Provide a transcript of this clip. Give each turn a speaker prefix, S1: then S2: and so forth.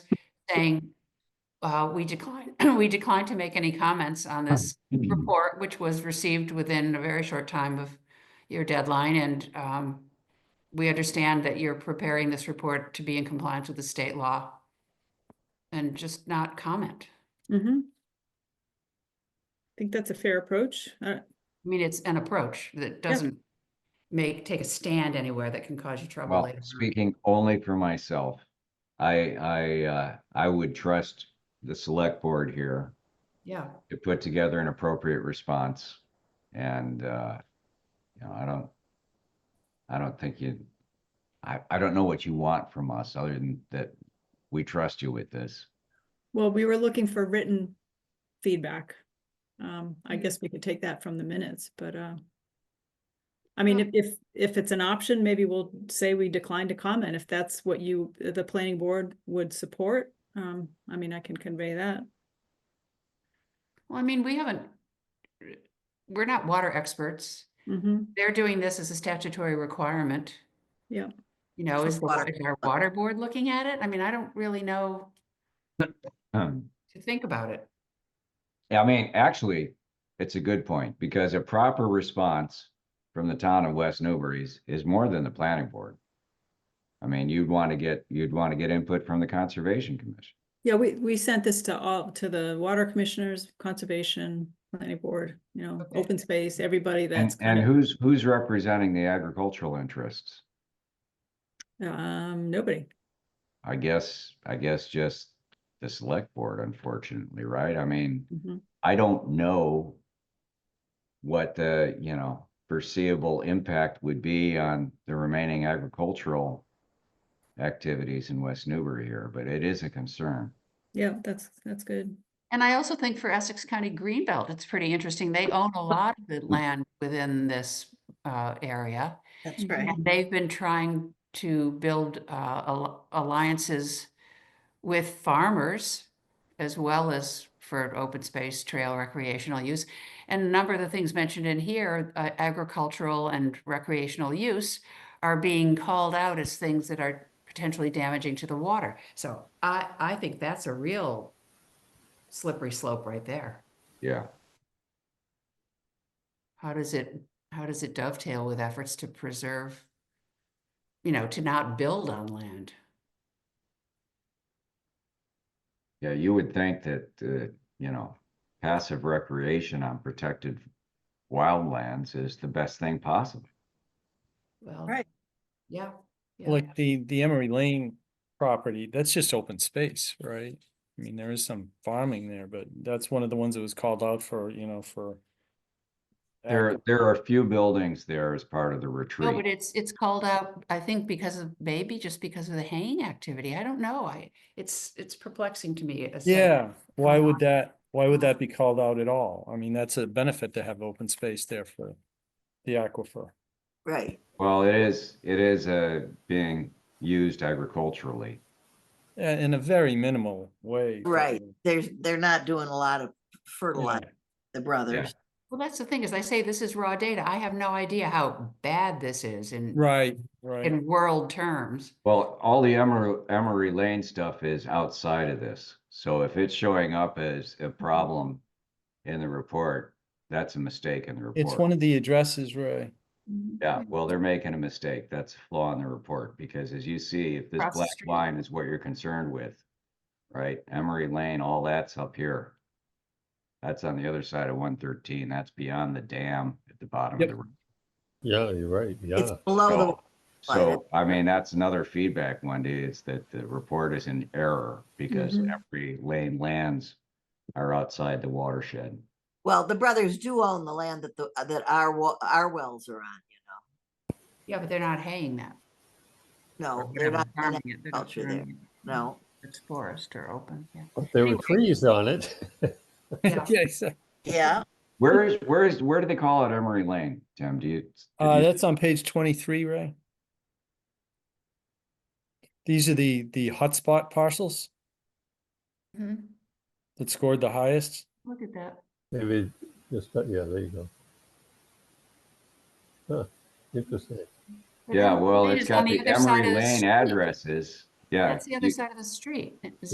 S1: saying, uh, we decline, we decline to make any comments on this report, which was received within a very short time of your deadline, and um, we understand that you're preparing this report to be in compliance with the state law. And just not comment.
S2: Mm-hmm. I think that's a fair approach. Uh,
S1: I mean, it's an approach that doesn't make, take a stand anywhere that can cause you trouble
S3: Well,
S1: later. on.
S3: speaking only for myself, I, I, uh, I would trust the select board here
S1: Yeah,
S3: to put together an appropriate response. And, uh, you know, I don't, I don't think you, I, I don't know what you want from us other than that we trust you with this.
S2: Well, we were looking for written feedback. Um, I guess we could take that from the minutes, but, uh, I mean, if, if, if it's an option, maybe we'll say we decline to comment if that's what you, the planning board would support. Um, I mean, I can convey that.
S1: well, I mean, we haven't, we're not water experts.
S2: Mm-hmm,
S1: They're doing this as a statutory requirement.
S2: yeah.
S1: You know, is the wa-
S4: water-
S1: is our water board looking at it? I mean, I don't really know
S3: Um,
S1: to think about it.
S3: I mean, actually, it's a good point because a proper response from the town of West Newbury is, is more than the planning board. I mean, you'd want to get, you'd want to get input from the Conservation Commission.
S2: Yeah, we, we sent this to all, to the water commissioners, conservation, planning board, you know,
S1: Okay.
S2: open space, everybody
S3: And,
S2: that's.
S3: and
S2: kind of-
S3: who's, who's representing the agricultural interests?
S2: Um, nobody.
S3: I guess, I guess just the select board, unfortunately, right? I mean,
S2: Mhm.
S3: I don't know what the, you know, foreseeable impact would be on the remaining agricultural activities in West Newbury here, but it is a concern.
S2: Yeah, that's, that's good.
S1: And I also think for Essex County Greenbelt, it's pretty interesting. They own a lot of the land within this uh, area.
S4: That's
S2: Mhm.
S4: right.
S1: And they've been trying to build uh, al- alliances with farmers as well as for open space, trail, recreational use. And a number of the things mentioned in here, uh, agricultural and recreational use are being called out as things that are potentially damaging to the water. So I, I think that's a real slippery slope right there.
S3: Yeah.
S1: How does it, how does it dovetail with efforts to preserve, you know, to not build on land?
S3: Yeah, you would think that, uh, you know, passive recreation on protected wildlands is the best thing possible.
S1: Well,
S4: Right.
S1: yeah. yeah,
S5: Like the, the Emery Lane property, that's just open space, right? I mean, there is some farming there, but that's one of the ones that was called out for, you know, for.
S3: There,
S5: agri-
S3: there are a few buildings there as part of the
S1: No, Oh, but
S3: retreat.
S1: it's, it's called out, I think because of, maybe just because of the haying activity. I don't know. I, it's, it's perplexing to me. as to-
S5: Yeah, why
S1: going
S5: would
S1: on.
S5: that, why would that be called out at all? I mean, that's a benefit to have open space there for the aquifer.
S4: Right.
S3: Well, it is, it is, uh, being used agriculturally.
S5: uh, In a very minimal way.
S4: Right.
S5: probably.
S4: There's, they're not doing a lot of fertilizer, the brothers.
S1: Well, that's the thing, is I say this is raw data. I have no idea how bad this is in,
S5: Right, right.
S1: in world terms.
S3: Well, all the Emery, Emery Lane stuff is outside of this. So if it's showing up as a problem in the report, that's a mistake in the report.
S5: It's one of the addresses, Ray.
S2: Mm-hmm.
S3: Yeah, well, they're making a mistake. That's a flaw in the report because as you see, if this
S1: Across the
S3: black
S1: street.
S3: line is what you're concerned with, right? Emery Lane, all that's up here. That's on the other side of one thirteen. That's beyond the dam at the bottom of
S5: Yep.
S3: the. road.
S6: Yeah, you're right. Yeah.
S4: It's below the,
S3: So- So, I mean, that's another feedback, Wendy, is that the report is in error because
S1: Mm-hmm.
S2: Mhm.
S3: every lane lands are outside the watershed.
S4: well, the brothers do own the land that the, that our, wa- our wells are on, you
S1: Yeah, but they're not haying that.
S4: know?
S1: or
S4: No,
S1: whatever,
S4: they're not, doing
S1: farming it, they're not
S4: agriculture there.
S1: farming it.
S4: it, no.
S1: It's forest or open, yeah.
S6: But There were
S1: Anyway.
S6: trees on it.
S1: Yeah.
S5: Yeah, exactly.
S4: Yeah,
S3: Where
S1: Mm-hmm.
S3: is, where is, where do they call it Emery Lane, Tim? Do you? have
S5: Uh,
S3: you-
S5: that's on page twenty-three, Ray. These are the, the hotspot parcels
S1: Mhm.
S5: that scored the highest.
S1: Look at that.
S6: Maybe just, yeah, there you go. Huh, Interesting.
S1: But
S3: Yeah,
S1: Emery
S3: well,
S1: Lane
S3: it's
S1: is on
S3: got the
S1: other side
S3: Emery
S1: of the
S3: Lane
S1: street.
S3: addresses. Yeah.
S1: That's the other
S3: you-
S1: side of the street. Is